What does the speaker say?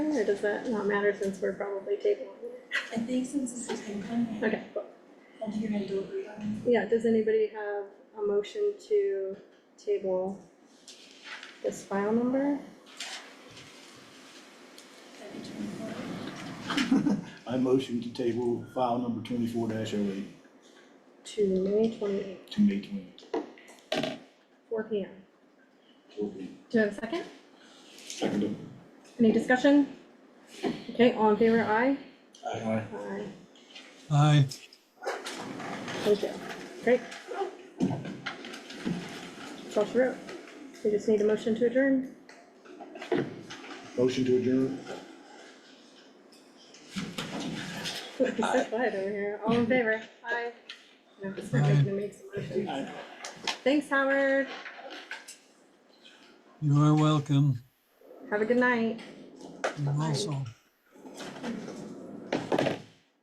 or does that not matter since we're probably tabling it? I think since it's the same thing, Okay, cool. I think you're gonna do it right. Yeah, does anybody have a motion to table this file number? That'd be twenty-four. I motion to table file number twenty-four dash oh eight To May twenty-eighth, to May twenty. four P M. Do you have a second? Second. Any discussion? Okay, all in favor, aye? Aye. Aye. Aye. Thank you. Great. That's all she wrote. We just need a motion to adjourn. Motion to adjourn? He's so quiet over here. All in favor? Aye. No, it's not making me make some motions. Thanks, Howard. You are welcome. Have a good night. You also.